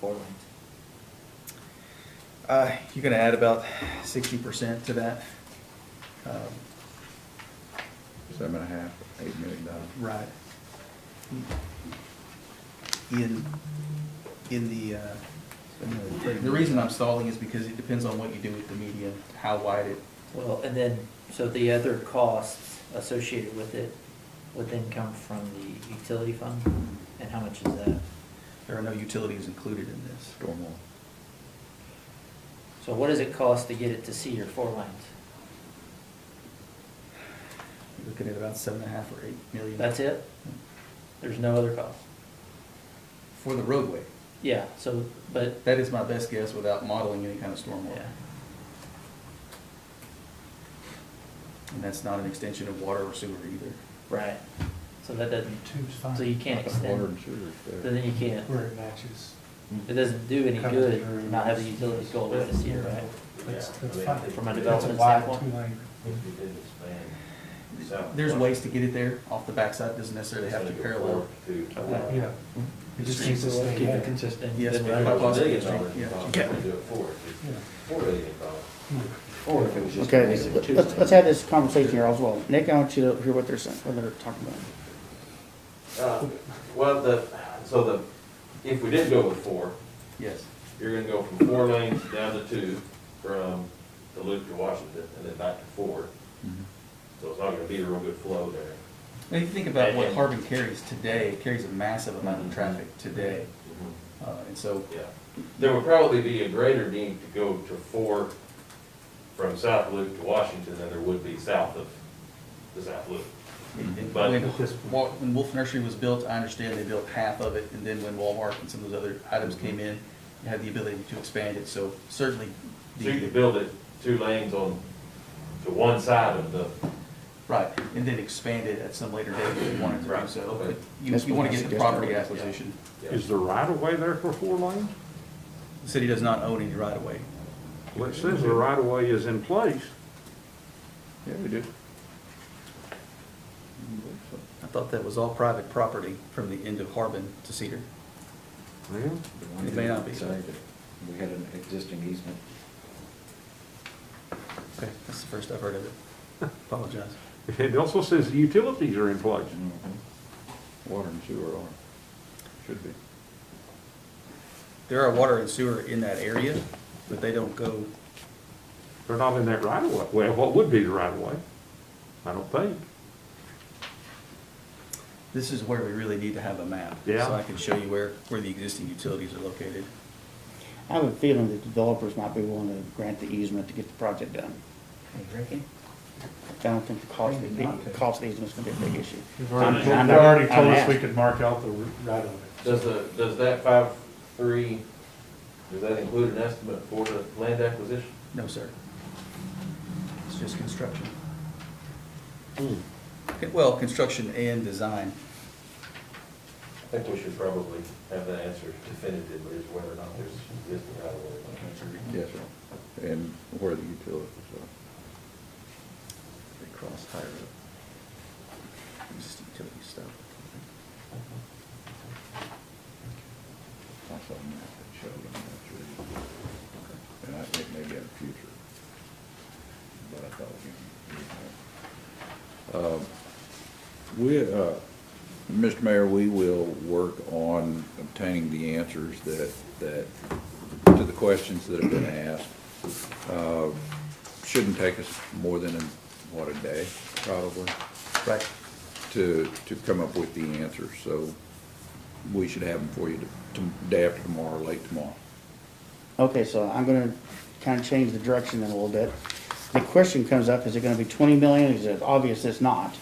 four lanes. Uh, you're gonna add about sixty percent to that. Um, seven and a half, eight million dollars. uh, Right. In, in the, uh, in the- the reason I'm stalling is because it depends on what you do with the median, how wide it, Well, and then, so the other costs associated with it would then come from the utility fund? And how much is that? there are no utilities included in this. Stormwater. So what does it cost to get it to C or four lanes? You're Looking at about seven and a half or eight million. That's it? There's no other cost? For the roadway. Yeah, so, but, That is my best guess without modeling any kind of yeah, stormwater. And that's not an extension of water or sewer either. right. So that doesn't, Two's so fine, you can't Water extend, and sewer is so there. then you can't, where it matches. it doesn't do any Covers good your- not having utilities go away to C, right? That's, Yeah, that's I mean, fine. From a That's a development That's a wide standpoint? two-lane. If you did expand south. There's ways to get it there off the backside, doesn't necessarily have to parallel. To. Okay. Uh, Yeah. It just needs to stay Keep it there. consistent. Yes, Then ma'am. we're If not it was a Possibly, million dollars, yeah. you'd probably do it for it. Yeah. Four million dollars. Hmm. Or if it was just. Okay, basic let's, two let's- let's lanes. have this conversation here as well. Nick, I want you to hear what they're saying, what they're talking about. Uh, Well, the, so the, if we did go with four, Yes. you're gonna go from four lanes down to two, from Duluth to Washington, and then back to four. Mm-hmm. Mhm. So it's not gonna be a real good flow there. Now, you think about what And- Harbin carries today, it carries a massive amount of traffic today. Uh, and so, Yeah, there would probably be a greater need to go to four from South Loop to Washington than there would be south of the South Loop. and But- when, Wa- when Wolf Nursery was built, I understand they built half of it, and then when Walmart and some of those other items Mm-hmm. came in, you had the ability to expand it, so certainly. the- So you could build it two lanes on, to one side of the, Right, and then expand it at some later date if you wanted to do Right, so. okay. But You, That's you what wanna I get the suggested. property acquisition. Is the right of way there for four lanes? The city does not own any right of way. Well, it says the right of way is in place. Yeah, we do. I thought that was all private property from the end of Harbin to Cedar. Well, Mm-hmm. It may not be. Say that We had an existing easement. Okay, that's the first I've heard of it. Apologize. It also says the utilities are in place. Water and sewer are, should be. There are water and sewer in that area, but they don't go, They're not in that right of way. Well, what would be the right of way? I don't think. this is where we really need to have a map. Yeah. So I can show you where, where the existing utilities are located. I have a feeling that developers might be willing to grant the easement to get the project done. I don't think the cost, would be- cost easement's gonna be a big issue. They've I'm- already, I'm they've not- already I'm told us not. we could mark out the right of it. does the, does that five, three, does that include an estimate for the land acquisition? No, sir. It's just construction. Okay, Well, construction and design. I think we should probably have that answer definitively, is whether or not there's existing right of way. Yes, sir. And where the utilities are. They cross higher up. Existing utility stuff. I saw a map that showed them that tree. And I think maybe in the future. But I thought, you know. Um, We, uh, Mr. Mayor, we will work on obtaining the answers that, that, to the questions that have been asked. Uh, Shouldn't take us more than, what, a day, probably, Right. to, to come up with the answers. So we should have them for you to, to, day after tomorrow, late tomorrow. Okay, so I'm gonna kinda change the direction then a little bit. The question comes up, is it gonna be twenty million? Is it obvious it's not?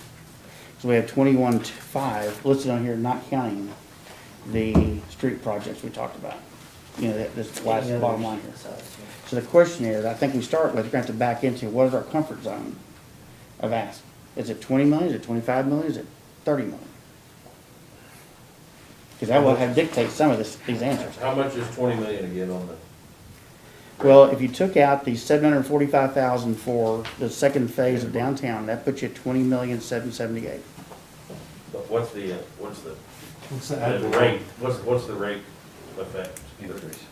So we have twenty-one five listed on here, not counting the street projects we talked about. You know, that, this last Any bottom others line here. besides, yeah. So the question is, I think we start with, we're gonna have to back into, what is our comfort zone of ask? Is it twenty million, is it twenty-five million, is it thirty million? Because that will have dictate some of this, these answers. How much is twenty million again on the? Well, if you took out the seven hundred and forty-five thousand for the second phase of downtown, that puts you at twenty million, seven seventy-eight. But What's the, uh, what's the, What's the that? rate, what's, what's the rate affect increase.